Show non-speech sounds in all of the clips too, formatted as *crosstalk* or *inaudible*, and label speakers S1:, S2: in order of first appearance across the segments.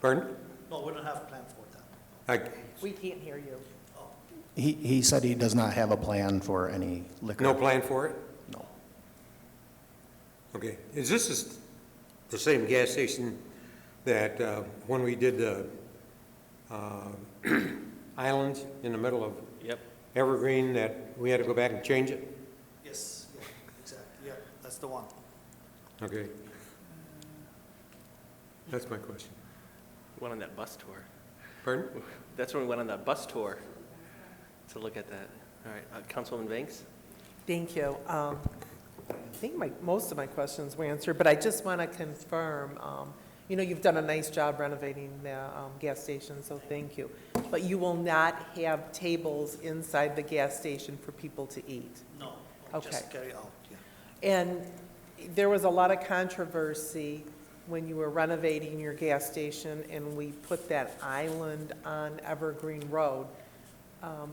S1: Pardon?
S2: No, we don't have a plan for that.
S1: I-
S3: We can't hear you.
S2: Oh,
S4: He, he said he does not have a plan for any liquor.
S1: No plan for it?
S4: No.
S1: Okay. Is this is the same gas station that uh, when we did the uh, *clears throat* islands in the middle of
S5: Yep.
S1: Evergreen, that we had to go back and change it?
S2: Yes, yeah, exactly, yeah, that's the one.
S1: Okay. That's my question.
S5: Went on that bus tour.
S1: Pardon?
S5: That's when we went on that bus tour to look at that. All right, uh, Councilwoman Banks?
S3: Thank you. Um, I think my, most of my questions were answered, but I just want to confirm, um, you know, you've done a nice job renovating the um, gas station, so thank you. But you will not have tables inside the gas station for people to eat?
S2: No,
S3: Okay.
S2: just carry out, yeah.
S3: And there was a lot of controversy when you were renovating your gas station and we put that island on Evergreen Road. Um,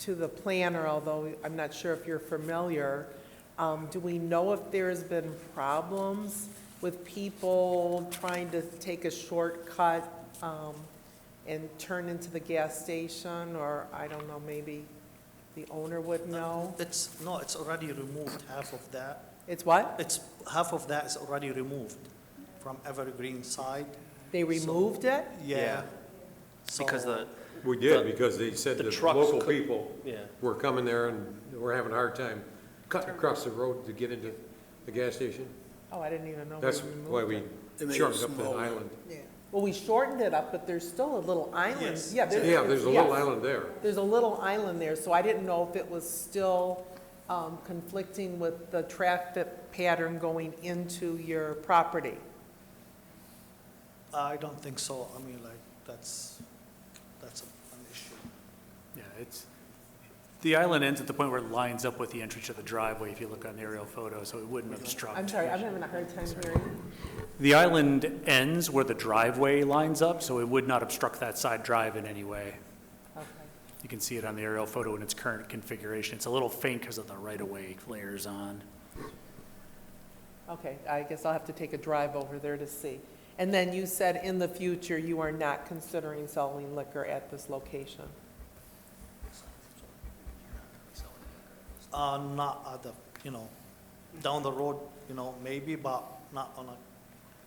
S3: To the planner, although I'm not sure if you're familiar, um, do we know if there's been problems with people trying to take a shortcut um, and turn into the gas station? Or, I don't know, maybe the owner would know?
S2: It's, no, it's already removed, half of that.
S3: It's what?
S2: It's, half of that is already removed from Evergreen side.
S3: They removed it?
S2: Yeah.
S5: Yeah. Because
S2: So-
S5: the,
S1: We did, because they said
S5: The
S1: the
S5: trucks
S1: local
S5: could-
S1: people
S5: yeah,
S1: were coming there and were having a hard time cutting across the road to get into the gas station.
S3: Oh, I didn't even know we
S1: That's why
S3: removed
S1: we
S3: it.
S6: made it
S1: shortened up that
S6: smaller.
S1: island.
S3: Well, we shortened it up, but there's still a little island.
S2: Yes.
S3: Yeah,
S1: Yeah, there's a little
S3: yes.
S1: island there.
S3: There's a little island there, so I didn't know if it was still um, conflicting with the traffic pattern going into your property.
S2: I don't think so, I mean, like, that's, that's an issue.
S7: Yeah, it's, the island ends at the point where it lines up with the entrance of the driveway, if you look on the aerial photo, so it wouldn't obstruct.
S3: I'm sorry, I'm having a hard time hearing.
S7: The island ends where the driveway lines up, so it would not obstruct that side drive in any way.
S3: Okay.
S7: You can see it on the aerial photo in its current configuration. It's a little faint because of the right-of-way layers on.
S3: Okay, I guess I'll have to take a drive over there to see. And then you said in the future, you are not considering selling liquor at this location?
S2: Uh, not at the, you know, down the road, you know, maybe, but not on a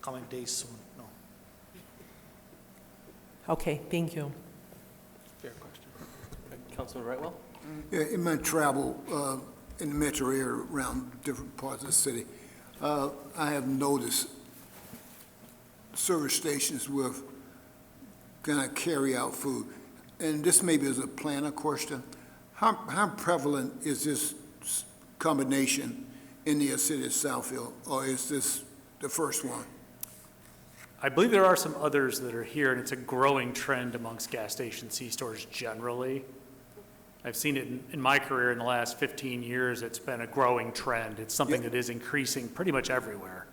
S2: coming days soon, no.
S3: Okay, thank you.
S5: fair question. Councilman Rightwell?
S6: Yeah, in my travel uh, in the metro area around different parts of the city, uh, I have noticed service stations with kind of carry-out food. And this maybe is a planner question. How, how prevalent is this s- combination in the city of Southfield? Or is this the first one?
S7: I believe there are some others that are here, and it's a growing trend amongst gas station C-stores generally. I've seen it in- in my career in the last 15 years, it's been a growing trend. It's something
S6: Yeah.
S7: that is increasing pretty much everywhere.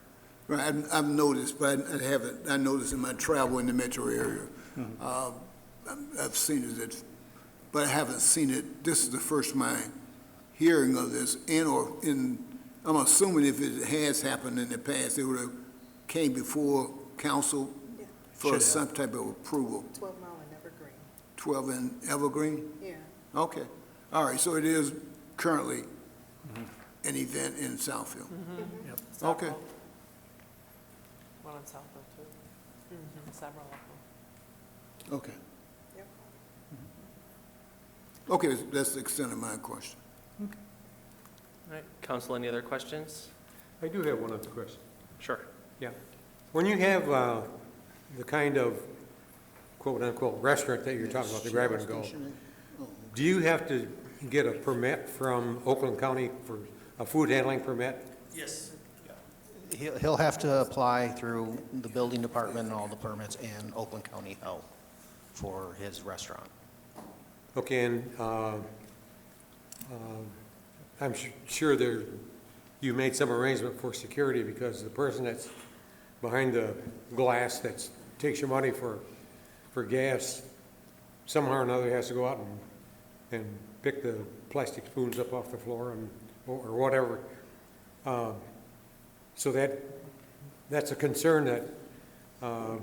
S6: Right, I've, I've noticed, but I haven't, I noticed in my travel in the metro area.
S7: Mm-hmm.
S6: Uh, I'm- I've seen it, at- but I haven't seen it, this is the first my hearing of this, and or in, I'm assuming if it has happened in the past, it would have came before council for
S7: Should have.
S6: some type of approval,
S8: 12 Mile and Evergreen,
S6: 12 and Evergreen?
S8: yeah.
S6: Okay, all right, so it is currently
S7: Mm-hmm.
S6: an event in Southfield. Okay.
S3: One on Southfield, too. Several of them.
S6: Okay.
S8: Yep.
S6: Okay, that's the extent of my question.
S5: All right, council, any other questions?
S1: I do have one other question.
S5: Sure.
S1: Yeah. When you have uh, the kind of quote-unquote restaurant that you're talking about, the grab-and-go, do you have to get a permit from Oakland County for a food handling permit?
S2: Yes, yeah.
S4: He'll, he'll have to apply through the building department and all the permits and Oakland County Health for his restaurant.
S1: Okay, and uh, um, I'm su- sure there, you made some arrangement for security because the person that's behind the glass that takes your money for, for gas, somehow or another has to go out and, and pick the plastic spoons up off the floor and, or whatever. Um, So that, that's a concern that uh,